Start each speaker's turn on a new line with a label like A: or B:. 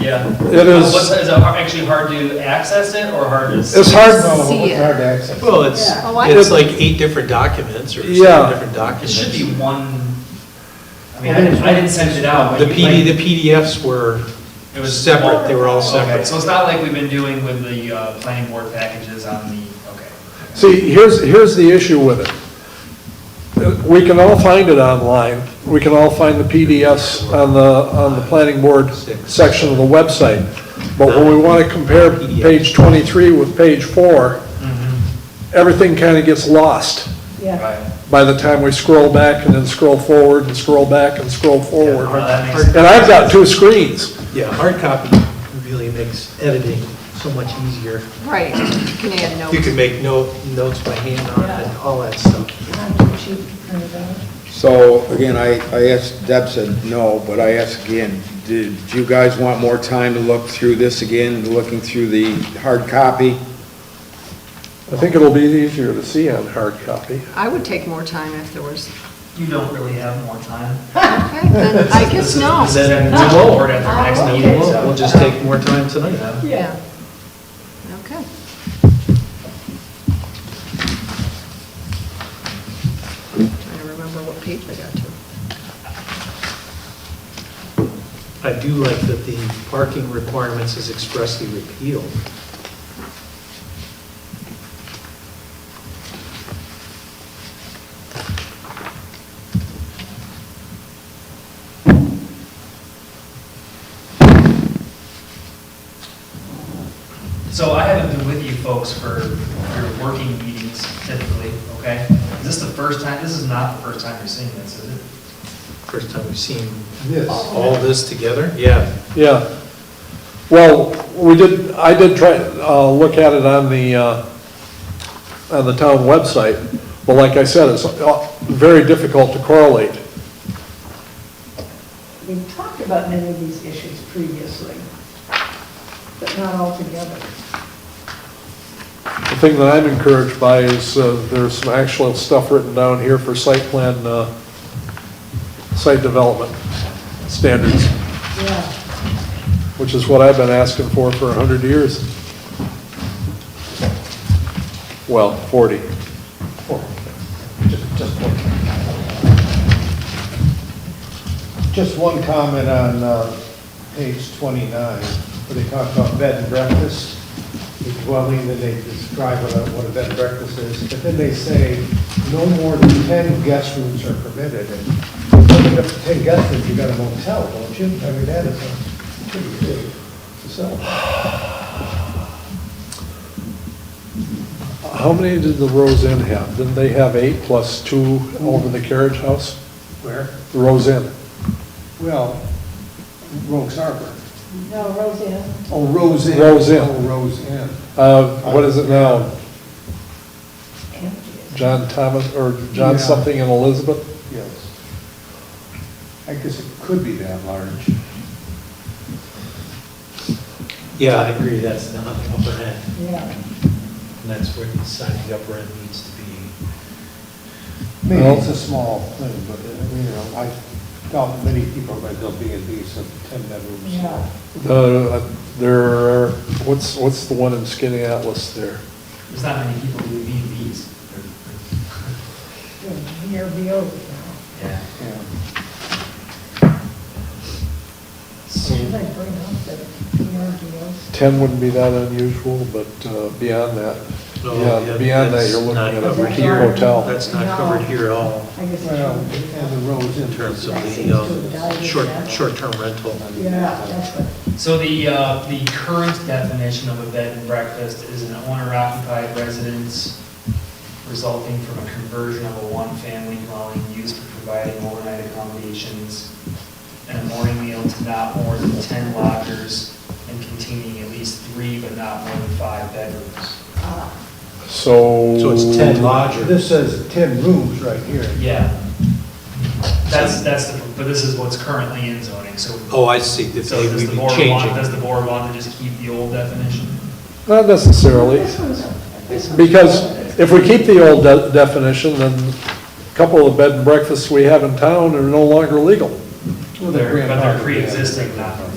A: yeah.
B: It is-
A: What's- Is it har- actually hard to access it or hard to?
B: It's hard,
C: No,
D: See
C: it's
D: it.
C: hard to access.
E: Well, it's,
D: Oh, I-
E: it's like eight different documents or
B: Yeah.
E: seven different
A: It
E: documents.
A: should be one, I mean, I didn't, I didn't send it out.
E: The
A: but you
E: PD,
A: might-
E: the PDFs were
A: It was
E: separate, they were all
A: Okay,
E: separate.
A: so it's not like we've been doing with the uh, planning board packages on the, okay.
B: see, here's, here's the issue with it. We can all find it online, we can all find the PDFs on the, on the planning board section of the website, but when we want to compare page 23 with page 4, everything kind of gets lost
C: Yeah.
A: Right.
B: by the time we scroll back and then scroll forward and scroll back and scroll forward.
A: Well, that makes-
B: And I've got two screens.
E: Yeah, hard copy really makes editing so much easier.
D: Right, you can add notes.
E: You can make note, notes by hand on it and all that stuff.
F: So, again, I, I asked, Deb said no, but I asked again, did you guys want more time to look through this again, looking through the hard copy?
B: I think it'll be easier to see on hard copy.
D: I would take more time if there was,
A: You don't really have more time.
D: okay, then I guess no.
A: This is in the board at their next
E: And
A: meeting,
E: Uh-huh. we'll,
A: so-
E: we'll just take more time tonight.
D: Yeah. Okay. Trying to remember what page I got to.
E: I do like that the parking requirements is expressly repealed.
A: So I haven't been with you folks for your working meetings typically, okay? Is this the first time, this is not the first time you're seeing this, is it?
E: First time we've seen
C: Yes.
E: all this together? Yeah.
B: Yeah. Well, we did, I did try, uh, look at it on the, uh, on the town website, but like I said, it's uh, very difficult to correlate.
C: We've talked about many of these issues previously, but not all together.
B: The thing that I'm encouraged by is uh, there's some actual stuff written down here for site plan, uh, site development standards,
C: Yeah.
B: which is what I've been asking for for 100 years. Well, 40.
C: Just, just one. Just one comment on uh, page 29, where they talk about bed and breakfast, the dwelling, that they describe what a- what a bed and breakfast is, but then they say no more than 10 guest rooms are permitted. And if you have 10 guest rooms, you got a motel, don't you? I mean, that is a pretty big facility.
B: How many did the Rose Inn have? Didn't they have eight plus two over the carriage house?
C: Where?
B: The Rose Inn.
C: Well, Rogues Harbor.
G: No, Roseanne.
C: Oh, Rose Inn.
B: Rose Inn.
C: Oh, Rose Inn.
B: Uh, What is it now?
G: Empty.
B: John Thomas, or John
C: Yeah.
B: something and Elizabeth?
C: Yes. I guess it could be that large.
E: Yeah, I agree, that's not upper end.
G: Yeah.
E: And that's where deciding the upper end needs to be.
G: Maybe
B: Well-
G: it's a small thing, but, uh, you know, I doubt many people are going to build B and Bs of ten bedrooms.
C: Yeah.
B: The- There, are- Uh, what's, what's the one in Skinny Atlas there?
A: There's not many people who need these.
C: VRBO.
A: Yeah.
C: Yeah.
G: Should I bring up the VRBOs?
B: 10 wouldn't be that unusual, but uh, beyond that,
E: No,
B: yeah, beyond that,
E: Oh, that's
B: you're looking
E: not
B: at
E: covered
B: a
E: here.
B: hotel.
E: That's not covered here at all
G: I guess I
C: Well,
G: should.
C: and the Rose Inn.
E: in terms of
G: That seems
E: the
G: to
E: um,
G: have died
E: short,
G: down.
E: short-term rental.
G: Yeah, that's what,
A: So the, uh, the current definition of a bed and breakfast is an owner-occupied residence resulting from a conversion of a one-family dwelling used for providing overnight accommodations and a morning meal to not more than 10 lodgers and containing at least three but not more than five bedrooms.
B: So.
E: So it's 10 lodgers.
C: This says ten rooms right here.
A: Yeah. That's, that's the, but this is what's currently in zoning, so.
E: Oh, I see, that
A: So
E: they
A: does
E: would
A: the
E: be
A: board want, does
E: changing.
A: the board want to just keep the old definition?
B: Not necessarily. Because if we keep the old de- definition, then a couple of bed and breakfasts we have in town are no longer legal.
A: They're- But
C: Well,
A: they're
C: grandfathered, yeah.
A: pre-existing, not